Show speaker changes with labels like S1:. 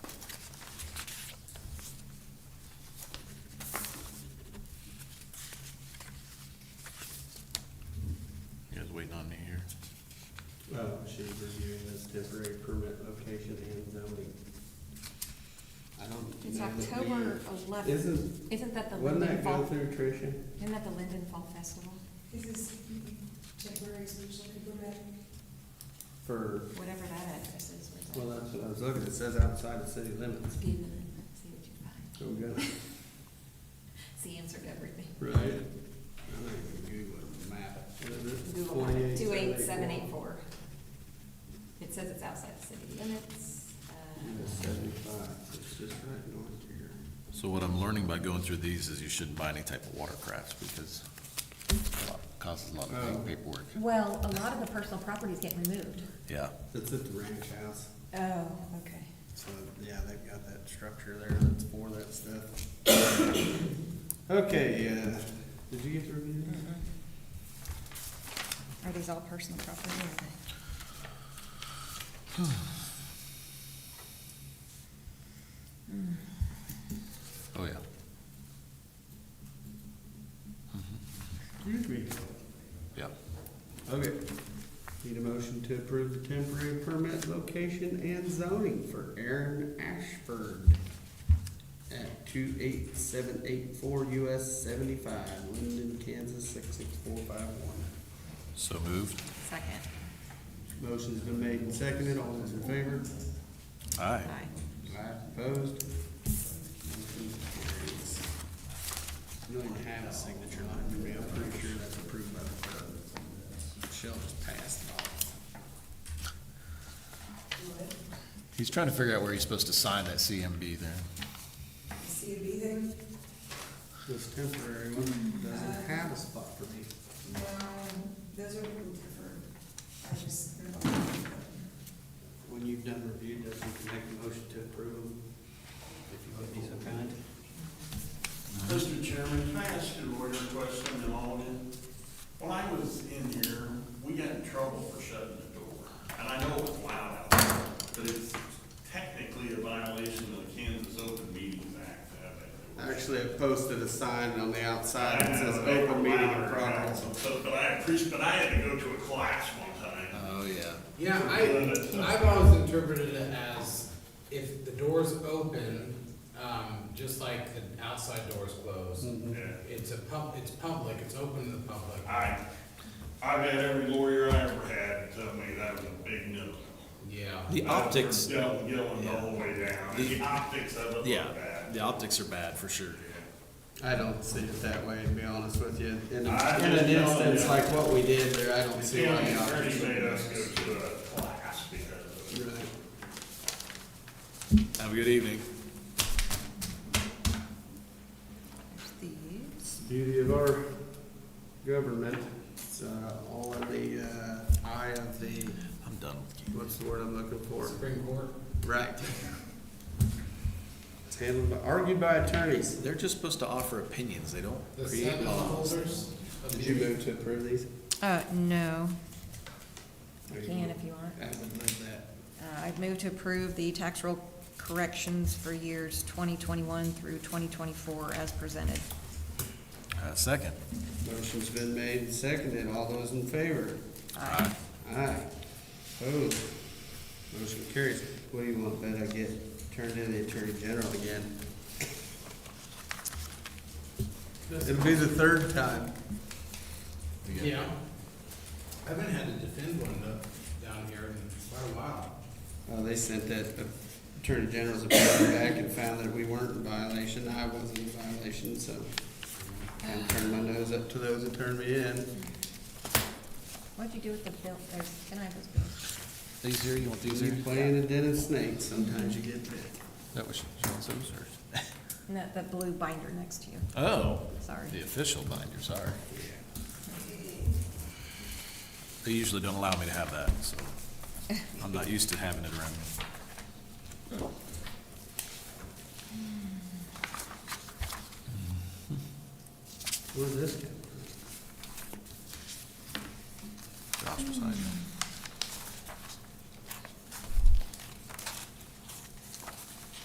S1: temporary permit location and zoning. I don't.
S2: It's
S1: know that we-
S2: October eleventh.
S1: Isn't,
S2: Isn't that the
S1: wouldn't
S2: Linden
S1: that go
S2: Fall,
S1: through Tricia?
S2: isn't that the Linden Fall Festival?
S3: This is temporary solution to permit.
S1: For,
S2: Whatever that address is. where's that?
S1: well, that's what I was looking, it says outside the city limits.
S2: Be a minute, let's See what you find.
S1: So we got-
S2: It's the answer to everything.
S1: Right. I think we Google it, map. it. What is it?
S2: Google it, two eight
S1: 28784.
S2: seven eight four. It says it's outside the city limits.
S1: Yeah,
S2: uh,
S1: it's Seventy-five, so it's just right north of here.
S4: So what I'm learning by going through these is you shouldn't buy any type of watercrafts because it causes a lot
S1: Oh.
S4: of paperwork.
S2: Well, a lot of the personal properties get removed.
S4: Yeah.
S1: It's at the ranch house,
S2: Oh, okay.
S1: so, yeah, they've got that structure there that's for that stuff. Okay, uh, did you get to review that?
S2: Are these all personal property or are they?
S4: Oh, yeah.
S1: Excuse me.
S4: Yeah.
S1: Okay. Need a motion to approve the temporary permit location and zoning for Aaron Ashford at two eight seven eight four US seventy-five, Linden, Kansas, six six four five one.
S4: So moved.
S2: Second.
S1: Motion's been made and seconded, all those in favor?
S4: Aye.
S2: Aye.
S1: Aye, opposed? Motion carries. You don't even have a signature line for me, I'm pretty sure that's approved by the judge. Michelle just passed it off.
S4: He's trying to figure out where he's supposed to sign that CMB there.
S3: See it be there?
S1: This temporary one doesn't have a spot for me.
S3: No, Um, those are removed for, I just, they're not.
S1: When you've done review, does you can make a motion to approve them, if you would be so kind?
S5: Mr. Chairman, can I ask you a lawyer question in Alden? When I was in here, we got in trouble for shutting the door. And I know it was loud out there, but it's technically a violation of the Kansas Open Meetings Act. to have that door shut.
S1: Actually, I posted a sign on the outside
S5: I
S1: that
S5: know
S1: says
S5: they were
S1: open meeting in
S5: louder now,
S1: progress.
S5: So, but I appreciate, but I had to go to a class one time.
S4: Oh, yeah.
S6: Yeah, I, I've always interpreted it as if the door's open, um, just like the outside door's closed.
S5: Yeah.
S6: It's a pub, it's public, it's open to the public.
S5: I, I've had every lawyer I ever had tell me that was a big no.
S6: Yeah.
S7: The optics,
S5: Yelling, yelling the whole way down. The
S7: The-
S5: optics of it look
S7: yeah,
S5: bad.
S7: the optics are bad for sure.
S1: I don't see it that way, to be honest with you. In,
S5: I
S1: a- in an
S5: just don't,
S1: instance
S5: yeah.
S1: like what we did there, I don't see
S5: The
S1: why.
S5: county
S1: the
S5: attorney
S1: option
S5: made us
S1: is.
S5: go to a class because of it.
S1: Right.
S7: Have a good evening.
S2: There's these.
S1: Beauty of our government, it's, uh, all in the, uh, eye of the,
S4: I'm done with you.
S1: what's the word I'm looking for?
S6: Supreme Court.
S1: Right. It's handled by, argued by attorneys.
S7: They're just supposed to offer opinions. They don't
S6: The
S7: create
S6: seven
S7: laws.
S6: holders of
S1: Did you
S6: the-
S1: move to approve these?
S2: Uh, no,
S1: There you
S2: can
S1: go.
S2: if you want.
S1: I would love that.
S2: Uh, I've moved to approve the tax roll corrections for years 2021 through 2024 as presented.
S4: Uh, second.
S1: Motion's been made and seconded. All those in favor?
S2: Aye.
S1: Aye. Opposed? Motion carries. What do you want, Ben? I get turned into the Attorney General again. It'll be the third time.
S4: You got-
S6: Yeah. I haven't had to defend one though, down here in quite a while.
S1: Uh, they sent that Attorney General's opinion back and found that we weren't in violation. I wasn't in violation, so I turned my nose up to those that turned me in.
S2: What'd you do with the bill, there's, can I have those bills?
S4: These here, you want these
S1: You
S4: here?
S1: play in a den of snakes, sometimes you get bit.
S4: That was, she wants those or?
S2: No, the blue binder next to you,
S4: Oh,
S2: sorry.
S4: the official binder, sorry. They usually don't allow me to have that, so I'm not used to having it around me.
S1: Where's this? go?